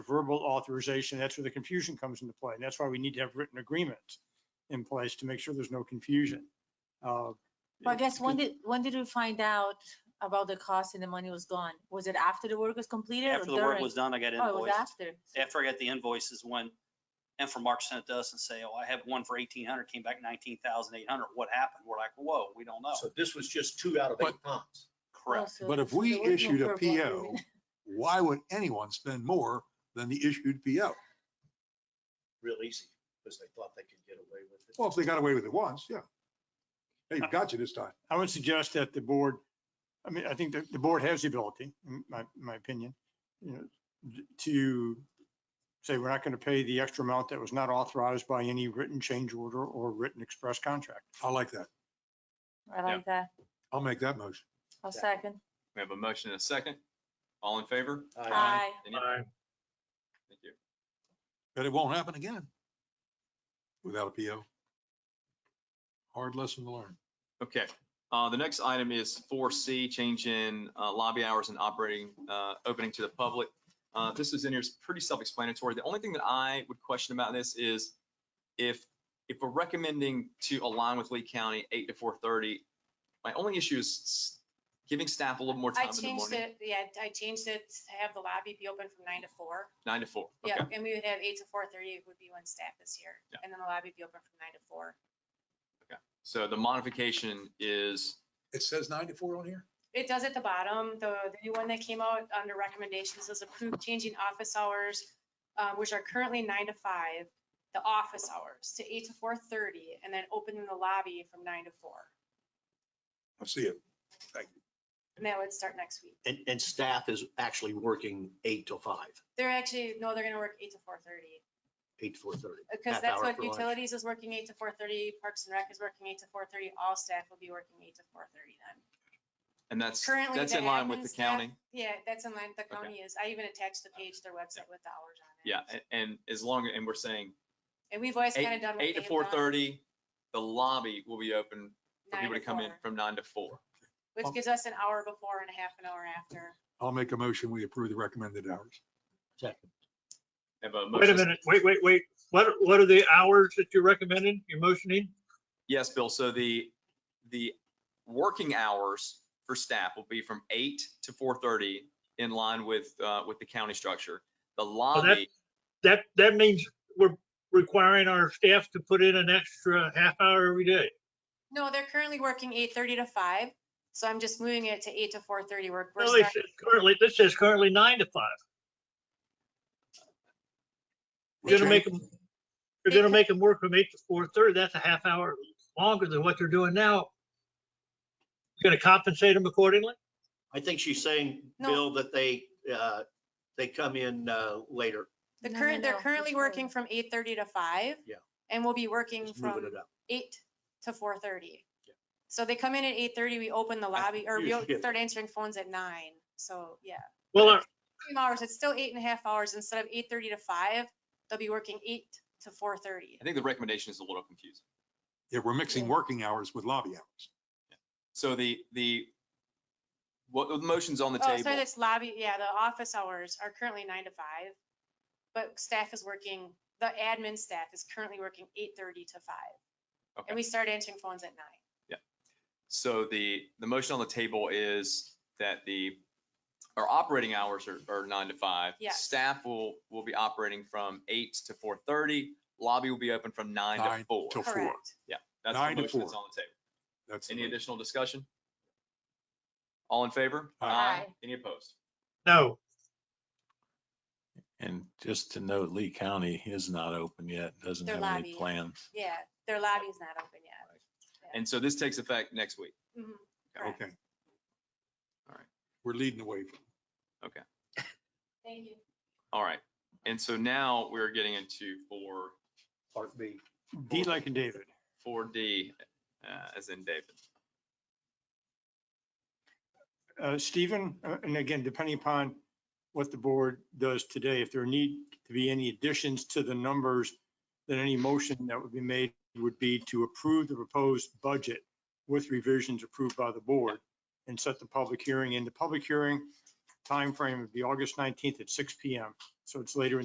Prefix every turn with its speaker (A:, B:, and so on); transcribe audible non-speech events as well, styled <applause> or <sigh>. A: verbal authorization, that's where the confusion comes into play. And that's why we need to have written agreements in place to make sure there's no confusion. Uh,
B: Well, I guess when did, when did we find out about the cost and the money was gone? Was it after the work was completed or
C: After the work
B: during?
C: was done, I got
B: Oh, it was
C: invoiced.
B: after. So-
C: After I got the invoices, when Infomark sent it to us and say, oh, I have one for eighteen hundred, came back nineteen thousand eight hundred. What happened? We're like, whoa, we don't know.
D: So this was just two out of eight ponds.
B: oh,
C: Correct.
B: so
E: But if
B: there
E: we
B: was no
E: issued a
B: verbal agreement.
E: PO, why would anyone spend more than the issued PO?
D: Real easy, because they thought they could get away with it.
E: Well, if they got away with it once, yeah. Hey, we got you this time.
A: I would suggest that the board, I mean, I think that the board has the ability, in my, my opinion, you know, d- to say, we're not going to pay the extra amount that was not authorized by any written change order or written express contract.
E: I like that.
B: <laughs> I like that.
E: I'll make that motion.
B: I'll
D: Yeah.
B: second.
F: We have a motion and a second. All in favor?
G: Uh,
B: Aye.
F: Any- Thank you.
E: But it won't happen again without a PO. Hard lesson to learn.
F: Okay, uh, the next item is four C, change in uh, lobby hours and operating, uh, opening to the public. Uh, This is in here, it's pretty self-explanatory. The only thing that I would question about this is if, if we're recommending to align with Lee County eight to four thirty, my only issue is s- giving staff a little more
G: I
F: time in the
G: changed
F: morning,
G: it, yeah, I changed it, to have the lobby be open from nine to four.
F: nine to four.
G: Yeah,
F: Okay,
G: and we would have eight to four thirty would be when staff is here,
F: Yeah.
G: and then the lobby be open from nine to four.
F: so the modification is,
E: It says ninety-four on here?
G: It does at the bottom, the, the new one that came out under recommendations is approved changing office hours, uh, which are currently nine to five, the office hours to eight to four thirty, and then opening the lobby from nine to four.
E: I see it.
G: And that would start next week.
D: And, and staff is actually working eight till five,
G: They're actually, no, they're gonna work eight to four thirty.
D: eight to four thirty.
G: Because
D: Half
G: that's
D: hour
G: what
D: for lunch.
G: utilities is working eight to four thirty, Parks and Rec is working eight to four thirty, all staff will be working eight to four thirty then.
F: and that's,
G: Currently,
F: that's
G: the
F: in line with
G: admin
F: the
G: staff-
F: county.
G: Yeah, that's in line, the
F: Okay.
G: county is, I even attached the page to their website with the hours on it.
F: Yeah, a- and as long, and we're saying
G: And we've always
F: eight,
G: kind of done. what
F: eight to
G: they've
F: four
G: done,
F: thirty, the lobby will be open for
G: nine
F: people to come Oh. in
G: four,
F: from nine to four.
G: Which gives us an hour before and a half an hour after.
E: I'll make a motion. We approve the recommended hours.
F: Have a
H: Wait a
F: motion-
H: minute, wait, wait, wait. What, what are the hours that you're recommending, you're motioning?
F: Yes, Bill. So the, the working hours for staff will be from eight to four thirty in line with, uh, with the county structure. The
H: Oh,
F: lobby,
H: That, that means we're requiring our staff to put in an extra half hour every day.
G: No, they're currently working eight thirty to five, so I'm just moving it to eight to four thirty work. we're
H: Well, they
G: starting-
H: said Currently, this says currently nine to five. You're gonna make them, you're gonna make them work from eight to four thirty, that's a half hour longer than what they're doing now. You're Gonna compensate them accordingly?
D: I think she's saying,
G: No.
D: Bill, that they, uh, they come in uh, later,
G: The
B: No, no,
G: current, they're
B: no,
G: currently
B: before.
G: working from eight thirty to five.
D: Yeah.
G: And we'll be working
D: just moving
G: from
D: it up.
G: eight to four thirty.
D: Yeah.
G: So they come in at eight thirty, we open the lobby, or we
D: Huge
G: o-
D: shift.
G: start answering phones at nine, so, yeah.
H: Well, our-
G: Two hours, it's still eight and a half hours, instead of eight thirty to five, they'll be working eight to four thirty.
F: I think the recommendation is a little confusing.
E: Yeah, we're mixing working hours with lobby hours.
F: So the, the, what the motion's on the
G: Oh, sorry,
F: table,
G: that's lobby, yeah, the office hours are currently nine to five, but staff is working, the admin staff is currently working eight thirty to five.
F: Okay.
G: And we start answering phones at nine.
F: so the, the motion on the table is that the, our operating hours are, are nine to five.
G: Yes.
F: Staff will, will be operating from eight to four thirty. Lobby will be open from nine
E: Nine
F: to four.
E: till four.
G: Correct.
F: That's
E: nine to
F: the motion that's
E: four.
F: on the table.
E: That's. the
F: Any
E: motion.
F: additional discussion? All in favor?
E: Aye.
F: Any opposed?
H: no,
I: And just to note, Lee County is not open yet, doesn't
G: Their
I: have any
G: lobby.
I: plans.
G: Yeah, their lobby's not open yet.
F: And so this takes effect next week.
G: Mhm. Correct.
E: Okay.
F: All right.
E: We're leading the way.
G: Thank you.
F: All right. And so now we're getting into four,
D: Part B.
A: D like in David.
F: four D, uh, as in David.
A: Uh, Stephen, uh, and again, depending upon what the board does today, if there need to be any additions to the numbers, then any motion that would be made would be to approve the proposed budget with revisions approved by the board and set the public hearing. And the public hearing timeframe would be August 19th at 6 PM. So it's later in